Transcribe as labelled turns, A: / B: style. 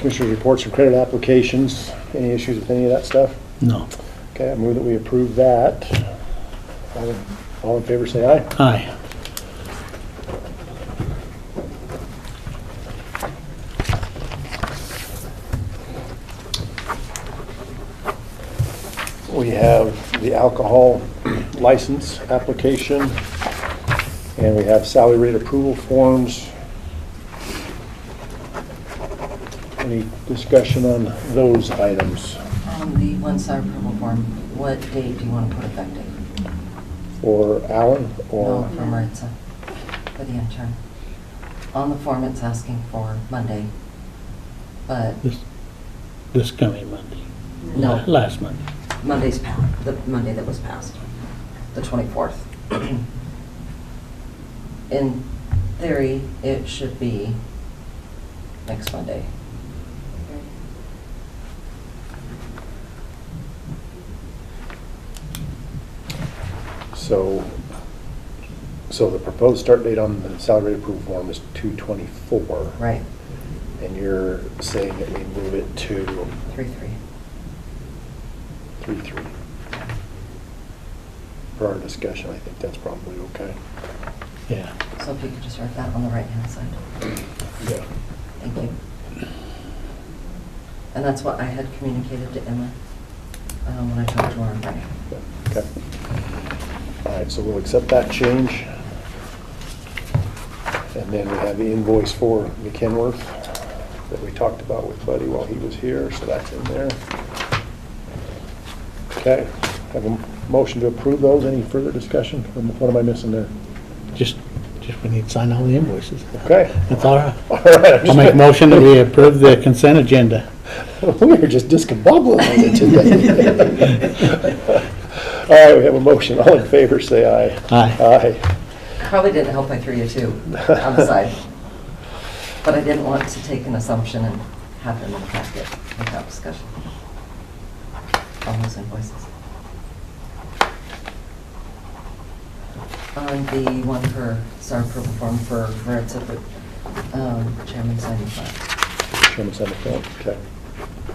A: Commissioners' reports from credit applications, any issues with any of that stuff?
B: No.
A: Okay, I move that we approve that. All in- All in favor, say aye.
B: Aye.
A: We have the alcohol license application, and we have salary rate approval forms. Any discussion on those items
C: On the one-side approval form, what date do you want to put effective?
A: for Alan
C: No,
A: or?
C: for Maritza, for the intern. On the form, it's asking for Monday, but
B: This, this coming Monday.
C: no,
B: Last Monday.
C: Monday's passed, the Monday that was passed, the 24th. In theory, it should be next Monday.
A: So, so the proposed start date on the salary rate approval form is 224.
C: Right,
A: And you're saying that we move it to
C: 3/3.
A: 3-3. For our discussion, I think that's probably okay.
B: Yeah.
C: So if you could just write that on the right-hand side.
A: Yeah.
C: Thank you. And that's what I had communicated to Emma um, when I talked to her on Friday.
A: Okay. All right, so we'll accept that change. And then we have the invoice for McKenworth that we talked about with Buddy while he was here, so that's in there. Okay, have a motion to approve those. Any further discussion? What am I missing there?
B: Just, just we need to sign all the invoices.
A: Okay.
B: That's all right.
A: All right. I'm
B: I'll make
A: just-
B: a motion that we approve the consent agenda.
A: We are just discombobulated today. All right, we have a motion. All in favor, say aye.
B: Aye.
A: Aye.
C: Probably didn't help I threw you two on the side. But I didn't want to take an assumption and have them in the packet without discussion. All those invoices. On the one for, sorry, approval form for Maritza, um, chairman signing file.
A: Chairman, sign the form. Okay.